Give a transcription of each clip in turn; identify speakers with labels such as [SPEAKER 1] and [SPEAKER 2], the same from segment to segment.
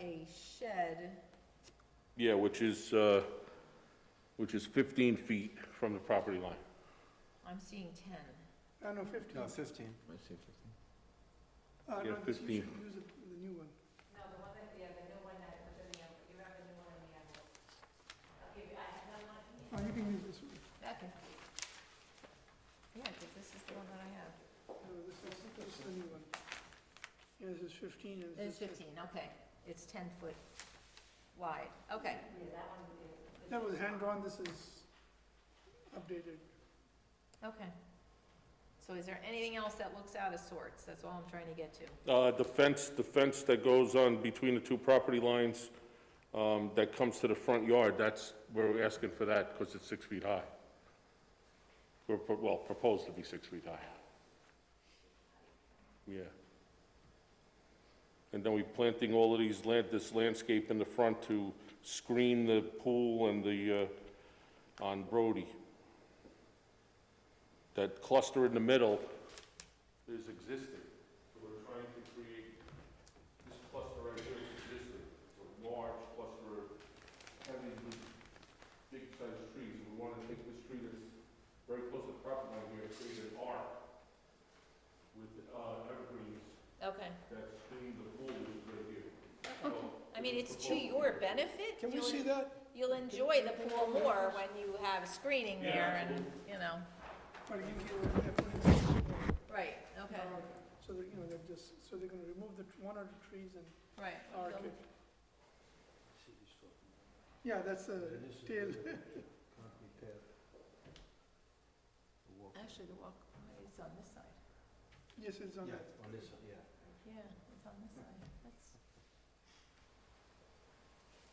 [SPEAKER 1] a shed,
[SPEAKER 2] Yeah, which is, uh, which is 15 feet from the property line.
[SPEAKER 1] I'm seeing ten.
[SPEAKER 3] No, no, fifteen.
[SPEAKER 4] No, fifteen.
[SPEAKER 3] Uh, no,
[SPEAKER 2] Yeah,
[SPEAKER 3] this-
[SPEAKER 2] 15.
[SPEAKER 3] you should use it- the new one.
[SPEAKER 5] No, the one that, yeah, the new one that was in the, envelope. you have the new one in the envelope. I'll give you, I have that one here.
[SPEAKER 3] Oh, you can use this one.
[SPEAKER 1] Okay. Yeah, because this is the one that I have.
[SPEAKER 3] No, this is, this is the new one. Yeah, this is fifteen and
[SPEAKER 1] It's
[SPEAKER 3] this is.
[SPEAKER 1] fifteen, okay. It's ten foot wide, okay.
[SPEAKER 3] That was hand-drawn, this is updated.
[SPEAKER 1] Okay. So is there anything else that looks out of sorts? That's all I'm trying to get to.
[SPEAKER 2] Uh, The fence, the fence that goes on between the two property lines um, that comes to the front yard, that's, we're asking for that because it's six feet high. We're, pro- well, proposed to be six feet high. Yeah. And then we planting all of these land, this landscape in the front to screen the pool and the, uh, on Brody. That cluster in the middle is existing. So we're trying to create, this cluster right here is existing, it's a large cluster of heavy, big-sized trees. We want to take this tree that's very close to the property line here, create an arc with uh, evergreens
[SPEAKER 1] Okay.
[SPEAKER 2] that screen the pool right here. So
[SPEAKER 1] I mean, it's to your benefit.
[SPEAKER 3] Can
[SPEAKER 1] You'll-
[SPEAKER 3] we see that?
[SPEAKER 1] You'll enjoy the pool more when you have screening
[SPEAKER 2] Yeah,
[SPEAKER 1] there and, you know.
[SPEAKER 3] Or you can give it- put it in the new one.
[SPEAKER 1] Right, okay,
[SPEAKER 3] Uh, So that, you know, they're just, so they're gonna remove the, one of the trees and
[SPEAKER 1] right.
[SPEAKER 3] arc it. Yeah, that's a tail.
[SPEAKER 1] Actually, the walk, it's on this side.
[SPEAKER 3] Yes, it's on that.
[SPEAKER 1] Yeah, it's on this side. That's.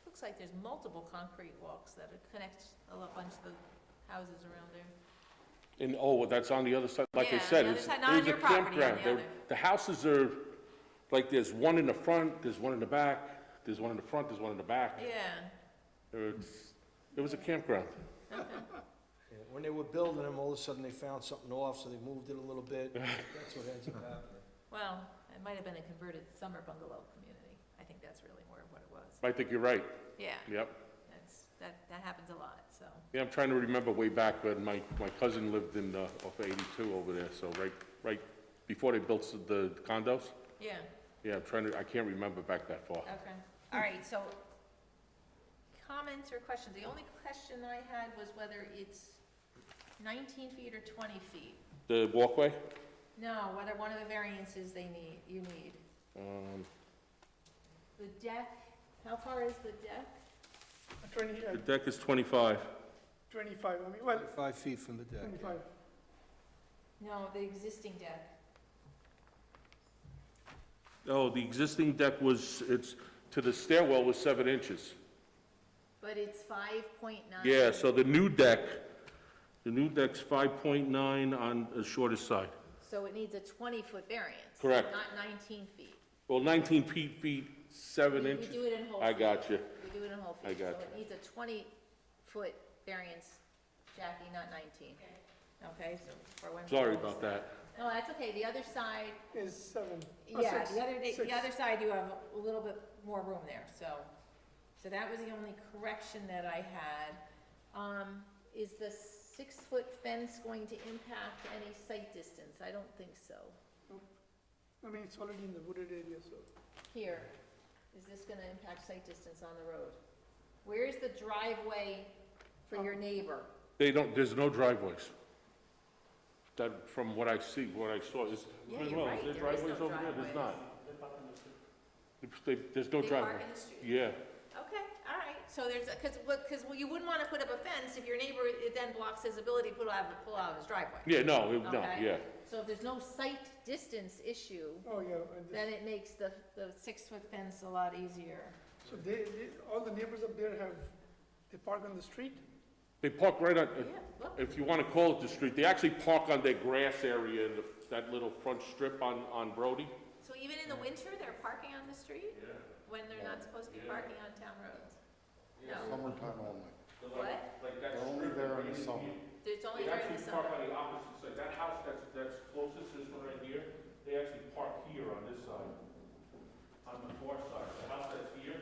[SPEAKER 1] Looks like there's multiple concrete walks that are- connect a lo- bunch of the houses around there.
[SPEAKER 2] And, oh, that's on the other side, like I
[SPEAKER 1] Yeah,
[SPEAKER 2] said,
[SPEAKER 1] the other
[SPEAKER 2] it's,
[SPEAKER 1] side, not on
[SPEAKER 2] there's a
[SPEAKER 1] your property, on the
[SPEAKER 2] campground. They're-
[SPEAKER 1] other.
[SPEAKER 2] The houses are, like, there's one in the front, there's one in the back, there's one in the front, there's one in the back.
[SPEAKER 1] Yeah,
[SPEAKER 2] It's- It was a campground.
[SPEAKER 4] Yeah, When they were building them, all of a sudden they found something off, so they moved it a little bit. That's what ends up happening.
[SPEAKER 1] well, it might have been a converted summer bungalow community. I think that's really more of what it was.
[SPEAKER 2] I think you're right,
[SPEAKER 1] Yeah,
[SPEAKER 2] yep.
[SPEAKER 1] that's, that, that happens a lot, so.
[SPEAKER 2] Yeah, I'm trying to remember way back, when my, my cousin lived in, uh, off eighty-two over there, so right, right before they built the condos.
[SPEAKER 1] Yeah,
[SPEAKER 2] Yeah, I'm trying to, I can't remember back that far.
[SPEAKER 1] okay. All right, so comments or questions? The only question I had was whether it's nineteen feet or twenty feet.
[SPEAKER 2] The walkway?
[SPEAKER 1] No, whether one of the variances they need, you need.
[SPEAKER 2] Um,
[SPEAKER 1] The deck, how far is the deck?
[SPEAKER 3] Twenty, uh,
[SPEAKER 2] the deck is twenty-five.
[SPEAKER 3] twenty-five, I mean, well,
[SPEAKER 4] Five feet from the deck.
[SPEAKER 3] twenty-five.
[SPEAKER 1] No, the existing deck.
[SPEAKER 2] Oh, the existing deck was, it's, to the stairwell was seven inches.
[SPEAKER 1] But it's five point nine.
[SPEAKER 2] Yeah, so the new deck, the new deck's five point nine on the shortest side.
[SPEAKER 1] So it needs a twenty-foot variance.
[SPEAKER 2] Correct.
[SPEAKER 1] Not nineteen feet.
[SPEAKER 2] Well, nineteen feet, feet, seven
[SPEAKER 1] We-
[SPEAKER 2] inches.
[SPEAKER 1] We do it in whole.
[SPEAKER 2] I
[SPEAKER 1] feet.
[SPEAKER 2] got you.
[SPEAKER 1] We do it in whole feet.
[SPEAKER 2] I got
[SPEAKER 1] So it needs a twenty-foot variance, Jackie, not nineteen. Okay, so for when. we
[SPEAKER 2] Sorry
[SPEAKER 1] close-
[SPEAKER 2] about that.
[SPEAKER 1] No, that's okay. The other side,
[SPEAKER 3] Is seven. or
[SPEAKER 1] yeah,
[SPEAKER 3] six,
[SPEAKER 1] the other, day-
[SPEAKER 3] six.
[SPEAKER 1] the other side, you have a little bit more room there, so. So that was the only correction that I had. Um, is the six-foot fence going to impact any sight distance? I don't think so.
[SPEAKER 3] I mean, it's already in the wooded area, so.
[SPEAKER 1] Here, is this gonna impact sight distance on the road? Where's the driveway for your neighbor?
[SPEAKER 2] They don't, there's no driveways. That, from what I see, what I saw is.
[SPEAKER 1] Yeah, you're
[SPEAKER 2] well,
[SPEAKER 1] right,
[SPEAKER 2] there
[SPEAKER 1] there is
[SPEAKER 2] driveways
[SPEAKER 1] no
[SPEAKER 2] over there? There's
[SPEAKER 1] driveways.
[SPEAKER 2] not. They- There's no
[SPEAKER 1] They park
[SPEAKER 2] Oh, driveway.
[SPEAKER 1] in the street.
[SPEAKER 2] Yeah,
[SPEAKER 1] Okay, all right, so there's, a- cause, what- cause you wouldn't wanna put up a fence if your neighbor, it then blocks his ability to pull out, pull out his driveway.
[SPEAKER 2] yeah, no, it- no,
[SPEAKER 1] Okay.
[SPEAKER 2] yeah.
[SPEAKER 1] So if there's no sight distance issue,
[SPEAKER 3] Oh, yeah, and this-
[SPEAKER 1] then it makes the, the six-foot fence a lot easier.
[SPEAKER 3] so they, they, all the neighbors up there have, they park on the street?
[SPEAKER 2] They park right on,
[SPEAKER 1] Yeah, look,
[SPEAKER 2] if you want to call it the street, they actually park on their grass area, in the- that little front strip on, on Brody.
[SPEAKER 1] so even in the winter, they're parking on the street? When they're not supposed to be parking on town roads? No,
[SPEAKER 6] Summertime only.
[SPEAKER 1] what?
[SPEAKER 2] Like that
[SPEAKER 6] They're only
[SPEAKER 2] strip
[SPEAKER 6] there
[SPEAKER 2] right
[SPEAKER 6] in
[SPEAKER 2] in
[SPEAKER 6] the summer.
[SPEAKER 2] here.
[SPEAKER 1] It's only
[SPEAKER 2] They
[SPEAKER 1] during the
[SPEAKER 2] actually park
[SPEAKER 1] summer.
[SPEAKER 2] on the opposite side, that house that's, that's closest, this one right here, they actually park here on this side, on the far side.